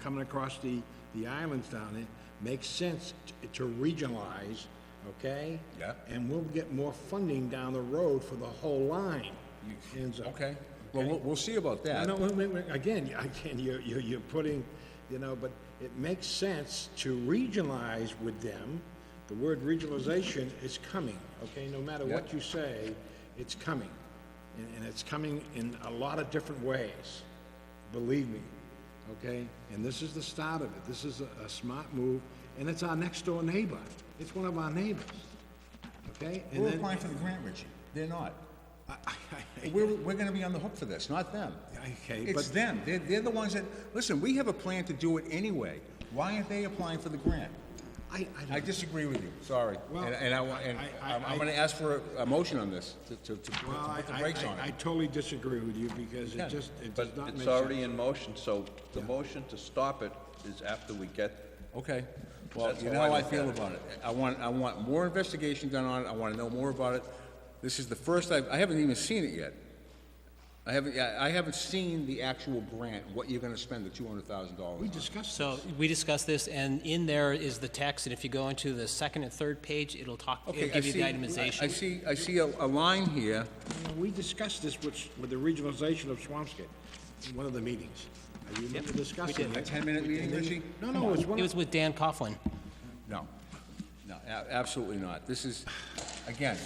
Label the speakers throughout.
Speaker 1: coming across the, the islands down there, makes sense t- to regionalize, okay?
Speaker 2: Yeah.
Speaker 1: And we'll get more funding down the road for the whole line, ends up.
Speaker 2: Okay, well, we'll, we'll see about
Speaker 1: I
Speaker 2: that.
Speaker 1: don't, wait, wait, wait, again, you- again, you're, you're, you're putting, you know, but it makes sense to regionalize with them. The word regionalization is coming, okay? No matter what
Speaker 2: Yeah.
Speaker 1: you say, it's coming. And, and it's coming in a lot of different ways, believe me, okay? And this is the start of it. This is a, a smart move, and it's our next door neighbor. It's one of our neighbors, okay? And
Speaker 2: We're
Speaker 1: then,
Speaker 2: applying for the grant, Richie, they're not. We're, we're gonna be on the hook for this, not them.
Speaker 1: okay,
Speaker 2: It's
Speaker 1: but,
Speaker 2: them, they're, they're the ones that, listen, we have a plan to do it anyway, why aren't they applying for the grant?
Speaker 1: I, I don't
Speaker 2: I disagree with you, sorry,
Speaker 1: Well,
Speaker 2: and, and I, wa- and
Speaker 1: I- I-
Speaker 2: I'm,
Speaker 1: I-
Speaker 2: I'm gonna ask for a, a motion on this, to, to, to to
Speaker 1: Well, I,
Speaker 2: put the
Speaker 1: I-
Speaker 2: brakes
Speaker 1: I-
Speaker 2: on
Speaker 1: I
Speaker 2: it.
Speaker 1: totally disagree with you because it just, it does
Speaker 3: But
Speaker 1: not make
Speaker 3: it's
Speaker 1: sense.
Speaker 3: already in motion, so the motion to stop it is after we get,
Speaker 2: Okay, well,
Speaker 3: That's
Speaker 2: you
Speaker 3: how
Speaker 2: know
Speaker 3: I
Speaker 2: how I
Speaker 3: look
Speaker 2: feel
Speaker 3: at it.
Speaker 2: about it, I want, I want more investigation done on it, I wanna know more about it. This is the first, I, I haven't even seen it yet. I haven't, I I haven't seen the actual grant, what you're gonna spend the two hundred thousand dollars
Speaker 1: We
Speaker 2: on.
Speaker 1: discussed
Speaker 4: So we discussed this, and in there is the text, and if you go into the second and third page, it'll talk,
Speaker 2: Okay,
Speaker 4: it'll
Speaker 2: I
Speaker 4: give you the
Speaker 2: see- I
Speaker 4: itemization.
Speaker 2: see, I see a, a line here,
Speaker 1: this, we discussed this with, with the regionalization of Swampscott in one of the meetings. I remember discussing
Speaker 2: a
Speaker 1: it.
Speaker 2: ten-minute meeting, Richie?
Speaker 1: No, no, it was one
Speaker 4: It
Speaker 1: of,
Speaker 4: was with Dan Coughlin.
Speaker 2: No, no, a- absolutely not. This is, again,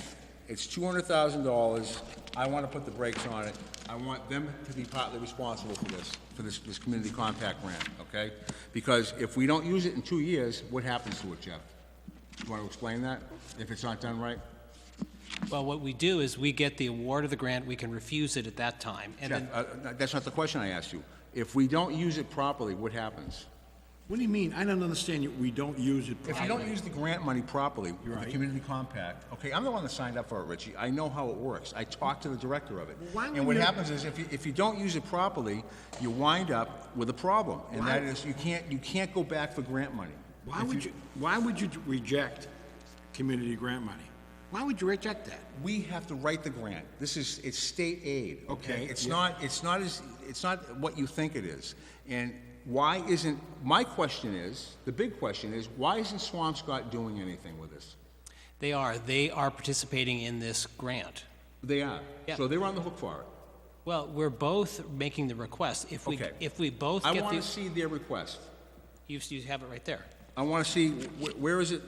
Speaker 2: it's two hundred thousand dollars. I want to put the brakes on it. I want them to be partly responsible for this, for this, this community compact grant, okay? Because if we don't use it in two years, what happens to it, Jeff? You want to explain that, if it's not done right?
Speaker 4: Well, what we do is we get the award of the grant, we can refuse it at that time, and
Speaker 2: Jeff,
Speaker 4: then,
Speaker 2: uh, uh, that's not the question I asked you. If we don't use it properly, what happens?
Speaker 1: what do you mean? I don't understand you. We don't use it
Speaker 2: If you
Speaker 1: properly.
Speaker 2: don't use the grant money properly, the
Speaker 1: right.
Speaker 2: community compact, okay, I'm the one that signed up for it, Richie, I know how it works, I talked to the director of it.
Speaker 1: why
Speaker 2: And
Speaker 1: wouldn't
Speaker 2: what
Speaker 1: you-
Speaker 2: happens is, if you, if you don't use it properly, you wind up with a problem, and that is, you can't, you can't go back for grant money.
Speaker 1: Why
Speaker 2: If
Speaker 1: would you, why would you reject community grant money? Why would you reject that?
Speaker 2: We have to write the grant, this is, it's state aid, okay?
Speaker 1: Okay,
Speaker 2: It's
Speaker 1: yeah.
Speaker 2: not, it's not as, it's not what you think it is. And why isn't, my question is, the big question is, why isn't Swampscott doing anything with this?
Speaker 4: they are, they are participating in this grant.
Speaker 2: They are,
Speaker 4: Yeah.
Speaker 2: so they're on the hook for it.
Speaker 4: Well, we're both making the request. If we,
Speaker 2: Okay.
Speaker 4: if we both
Speaker 2: I
Speaker 4: get
Speaker 2: want to
Speaker 4: the,
Speaker 2: see their request.
Speaker 4: you you have it right there.
Speaker 2: I want to see, wh- where is it?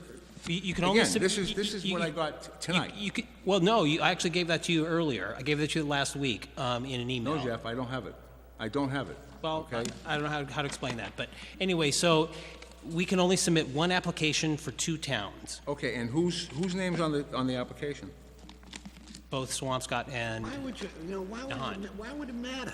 Speaker 4: You- You can only.
Speaker 2: Again,
Speaker 4: sub-
Speaker 2: this is-
Speaker 4: you-
Speaker 2: this is
Speaker 4: you-
Speaker 2: what I
Speaker 4: you-
Speaker 2: got t- tonight.
Speaker 4: You, you could- well, no, you, I actually gave that to you earlier. I gave that to you last week, um, in an email.
Speaker 2: No, Jeff, I don't have it. I don't have it.
Speaker 4: Well,
Speaker 2: Okay?
Speaker 4: I I don't know how, how to explain that, but anyway, so we can only submit one application for two towns,
Speaker 2: Okay, and whose, whose name's on the, on the application?
Speaker 4: both Swampscott and,
Speaker 1: Why would you, you know, why would,
Speaker 4: Don.
Speaker 1: it- why would it matter?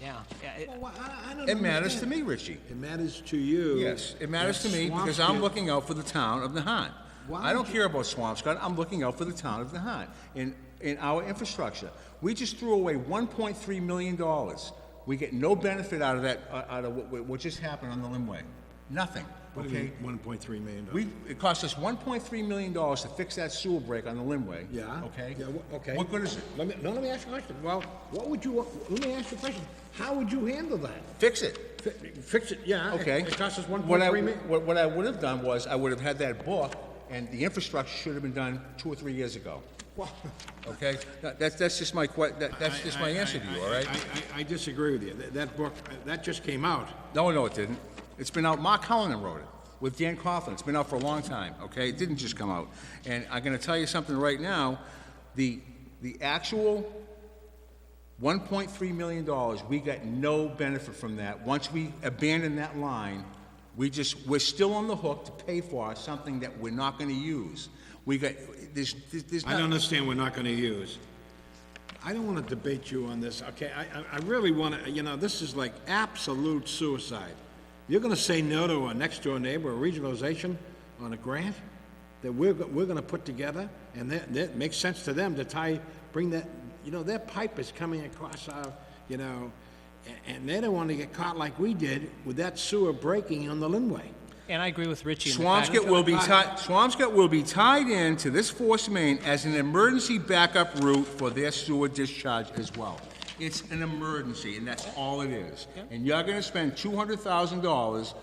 Speaker 4: yeah. yeah, it-
Speaker 1: Well, why- I, I don't
Speaker 2: It matters to
Speaker 1: understand.
Speaker 2: me, Richie.
Speaker 1: It matters to you.
Speaker 2: Yes, it matters to me
Speaker 1: that
Speaker 2: because I'm
Speaker 1: Swampscott-
Speaker 2: looking out for the town of Nahat.
Speaker 1: Why
Speaker 2: I don't
Speaker 1: would you-
Speaker 2: care about Swampscott, I'm looking out for the town of Nahat and, and our infrastructure. We just threw away one point three million dollars. We get no benefit out of that, uh, out of what, what just happened on the Limway. Nothing,
Speaker 1: What do you
Speaker 2: okay?
Speaker 1: mean, one point three million dollars?
Speaker 2: We, it cost us one point three million dollars to fix that sewer break on the Limway.
Speaker 1: Yeah.
Speaker 2: Okay?
Speaker 1: Yeah, wha- okay.
Speaker 2: What good is it?
Speaker 1: Let me, no, let me ask you a question. Well, what would you, let me ask you a question. How would you handle that?
Speaker 2: Fix it.
Speaker 1: Fi- Fix it, yeah. it-
Speaker 2: Okay.
Speaker 1: It costs us one
Speaker 2: What
Speaker 1: point
Speaker 2: I-
Speaker 1: three million.
Speaker 2: What, what I would have done was, I would have had that book, and the infrastructure should have been done two or three years ago. Okay? That- That's, that's just my que, that, that's just my answer to you, all right?
Speaker 1: I, I, I disagree with you. That, that book, uh, that just came out.
Speaker 2: No, no, it didn't. It's been out, Mark Cullen wrote it, with Dan Coughlin. It's been out for a long time, okay? It didn't just come out. And I'm gonna tell you something right now, the, the actual one point three million dollars, we got no benefit from that. Once we abandon that line, we just, we're still on the hook to pay for something that we're not gonna use. We got, there's, there's
Speaker 1: I don't
Speaker 2: not,
Speaker 1: understand we're not gonna use. I don't wanna debate you on this, okay? I, I, I really wanna, you know, this is like absolute suicide. You're gonna say no to our next-door neighbor, a regionalization on a grant that we're, go- we're gonna put together, and that, that makes sense to them to tie, bring that, you know, their pipe is coming across our, you know, a- and they don't wanna get caught like we did with that sewer breaking on the Linway.
Speaker 4: And I agree with Richie in the fact.
Speaker 2: Swampscott will be tied, Swampscott will be tied in to this force main as an emergency backup route for their sewer discharge as well. It's an emergency, and that's all it is. And you're gonna spend two hundred thousand dollars